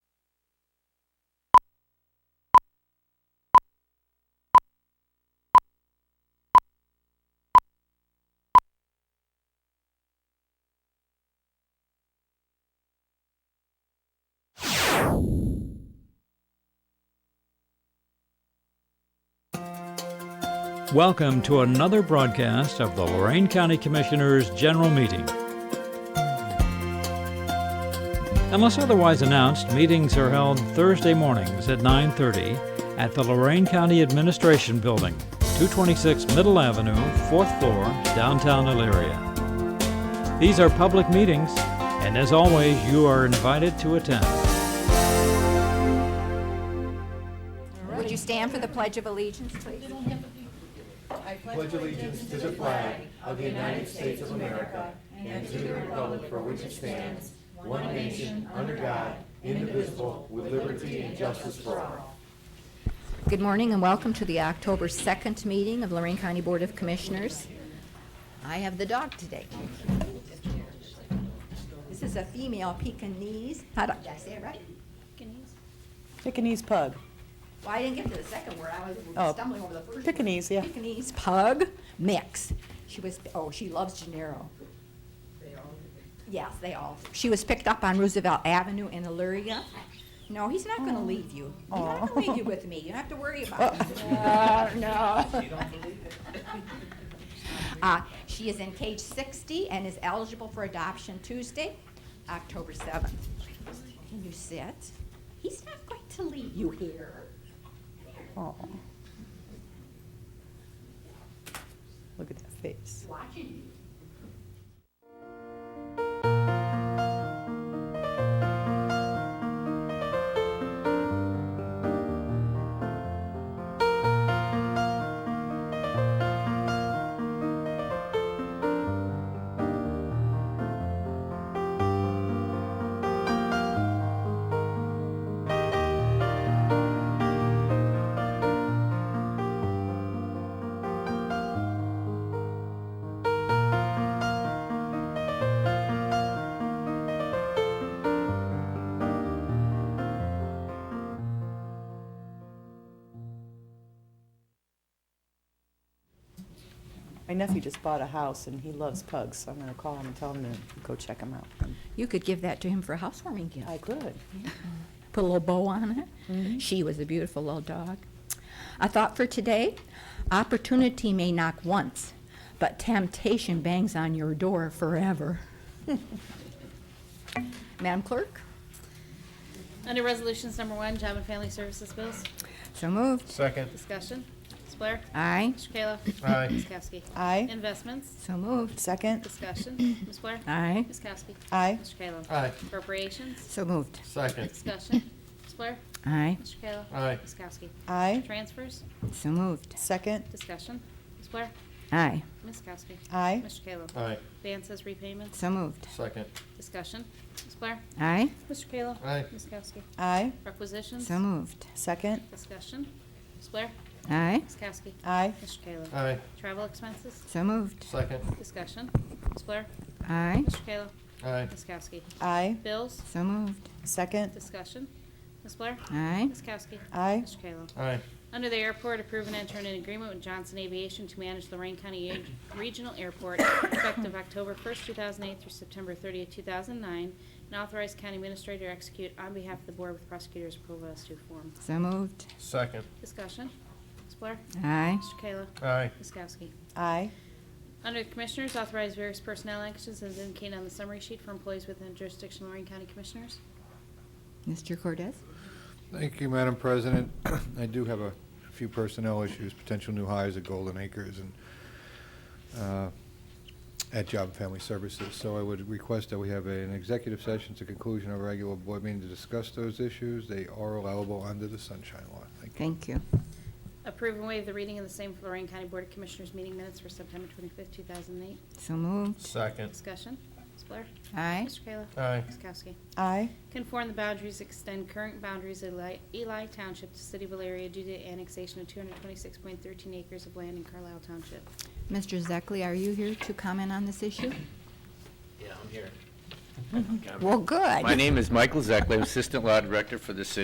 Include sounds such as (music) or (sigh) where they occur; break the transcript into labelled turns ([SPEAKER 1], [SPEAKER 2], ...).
[SPEAKER 1] Welcome to another broadcast of the Lorraine County Commissioners' General Meeting. Unless otherwise announced, meetings are held Thursday mornings at 9:30 at the Lorraine County Administration Building, 226 Middle Avenue, 4th floor, downtown Elyria. These are public meetings, and as always, you are invited to attend.
[SPEAKER 2] Would you stand for the Pledge of Allegiance, please? Good morning and welcome to the October 2nd meeting of Lorraine County Board of Commissioners. I have the dog today. This is a female Pekingese. How do, did I say it right?
[SPEAKER 3] Pekingese pug.
[SPEAKER 2] Well, I didn't get to the second word. I
[SPEAKER 3] Oh,
[SPEAKER 2] was stumbling over the first. one.
[SPEAKER 3] Pekingese, yeah.
[SPEAKER 2] Pekingese pug mix. She was, oh, she loves Gennaro. Yes, they all. She was picked up on Roosevelt Avenue in Illyria. No, he's not
[SPEAKER 3] Oh.
[SPEAKER 2] gonna leave you. He's not gonna leave you with me. You don't have to worry about
[SPEAKER 3] (laughs)
[SPEAKER 2] it. No, no. (laughs) Uh, She is in cage 60 and is eligible for adoption Tuesday, October 7th. Can you sit? He's not going to leave you here.
[SPEAKER 3] Aw. Look at that face.
[SPEAKER 2] Watching you.
[SPEAKER 3] My nephew just bought a house and he loves pugs, so I'm gonna call him and tell him to go check him out.
[SPEAKER 2] You could give that to him for a housewarming
[SPEAKER 3] I
[SPEAKER 2] gift.
[SPEAKER 3] could.
[SPEAKER 2] Put a little bow on it. She was a beautiful little dog. A thought for today opportunity may knock once, but temptation bangs on your door forever. Madam Clerk?
[SPEAKER 4] Under Resolutions Number One, Job and Family Services Bills,
[SPEAKER 2] So moved.
[SPEAKER 5] Second.
[SPEAKER 4] discussion. Ms. Blair?
[SPEAKER 2] Aye.
[SPEAKER 4] Mr. Kayla?
[SPEAKER 5] Aye.
[SPEAKER 4] Ms. Kowski?
[SPEAKER 3] Aye.
[SPEAKER 4] Investments,
[SPEAKER 2] So moved.
[SPEAKER 3] Second.
[SPEAKER 4] discussion. Ms. Blair?
[SPEAKER 2] Aye.
[SPEAKER 4] Ms. Kowski?
[SPEAKER 3] Aye.
[SPEAKER 4] Mr. Kayla?
[SPEAKER 5] Aye.
[SPEAKER 4] Appropriations,
[SPEAKER 2] So moved.
[SPEAKER 5] Second.
[SPEAKER 4] discussion. Ms. Blair?
[SPEAKER 2] Aye.
[SPEAKER 4] Mr. Kayla?
[SPEAKER 5] Aye.
[SPEAKER 4] Ms. Kowski?
[SPEAKER 3] Aye.
[SPEAKER 4] Transfers,
[SPEAKER 2] So moved.
[SPEAKER 3] Second.
[SPEAKER 4] discussion. Ms. Blair?
[SPEAKER 2] Aye.
[SPEAKER 4] Ms. Kowski?
[SPEAKER 3] Aye.
[SPEAKER 4] Mr. Kayla?
[SPEAKER 5] Aye.
[SPEAKER 4] Advances, repayments,
[SPEAKER 2] So moved.
[SPEAKER 5] Second.
[SPEAKER 4] discussion. Ms. Blair?
[SPEAKER 2] Aye.
[SPEAKER 4] Mr. Kayla?
[SPEAKER 5] Aye.
[SPEAKER 4] Ms. Kowski?
[SPEAKER 3] Aye.
[SPEAKER 4] Requisitions,
[SPEAKER 2] So moved.
[SPEAKER 3] Second.
[SPEAKER 4] discussion. Ms. Blair?
[SPEAKER 2] Aye.
[SPEAKER 4] Ms. Kowski?
[SPEAKER 3] Aye.
[SPEAKER 4] Mr. Kayla?
[SPEAKER 5] Aye.
[SPEAKER 4] Travel expenses,
[SPEAKER 2] So moved.
[SPEAKER 5] Second.
[SPEAKER 4] discussion. Ms. Blair?
[SPEAKER 2] Aye.
[SPEAKER 4] Mr. Kayla?
[SPEAKER 5] Aye.
[SPEAKER 4] Ms. Kowski?
[SPEAKER 3] Aye.
[SPEAKER 4] Bills?
[SPEAKER 2] So moved.
[SPEAKER 3] Second.
[SPEAKER 4] Discussion. Ms. Blair?
[SPEAKER 2] Aye.
[SPEAKER 4] Ms. Kowski?
[SPEAKER 3] Aye.
[SPEAKER 4] Mr. Kayla?
[SPEAKER 5] Aye.
[SPEAKER 4] Under the airport, approve and enter an agreement with Johnson Aviation to manage Lorraine County Ag- Regional Airport effective October 1st, 2008 through September 30th, 2009, and authorize county administrator to execute on behalf of the board with prosecutor's approval as to form.
[SPEAKER 2] So moved.
[SPEAKER 5] Second.
[SPEAKER 4] Discussion. Ms. Blair?
[SPEAKER 2] Aye.
[SPEAKER 4] Mr. Kayla?
[SPEAKER 5] Aye.
[SPEAKER 4] Ms. Kowski?
[SPEAKER 3] Aye.
[SPEAKER 4] Under the Commissioners, authorize various personnel actions as indicated on the summary sheet for employees within jurisdiction of Lorraine County Commissioners.
[SPEAKER 2] Mr. Cordez?
[SPEAKER 6] Thank you, Madam President. I do have a few personnel issues, potential new hires at Golden Acres and uh, at Job and Family Services. So I would request that we have an executive session to conclusion of a regular board meeting to discuss those issues. They are allowable under the Sunshine Law. Thank you.
[SPEAKER 2] Thank you.
[SPEAKER 4] Approve and waive the reading of the same for Lorraine County Board of Commissioners meeting minutes for September 25th, 2008.
[SPEAKER 2] So moved.
[SPEAKER 5] Second.
[SPEAKER 4] Discussion. Ms. Blair?
[SPEAKER 2] Aye.
[SPEAKER 4] Mr. Kayla?
[SPEAKER 5] Aye.
[SPEAKER 4] Ms. Kowski?
[SPEAKER 3] Aye.
[SPEAKER 4] Conform the boundaries, extend current boundaries of Eli- Eli Township to City of Elaria due to annexation of 226.13 acres of land in Carlisle Township.
[SPEAKER 2] Mr. Zekley, are you here to comment on this issue?
[SPEAKER 7] Yeah, I'm here.
[SPEAKER 2] Well, good.
[SPEAKER 7] My name is Michael Zekley, Assistant Law Director for the City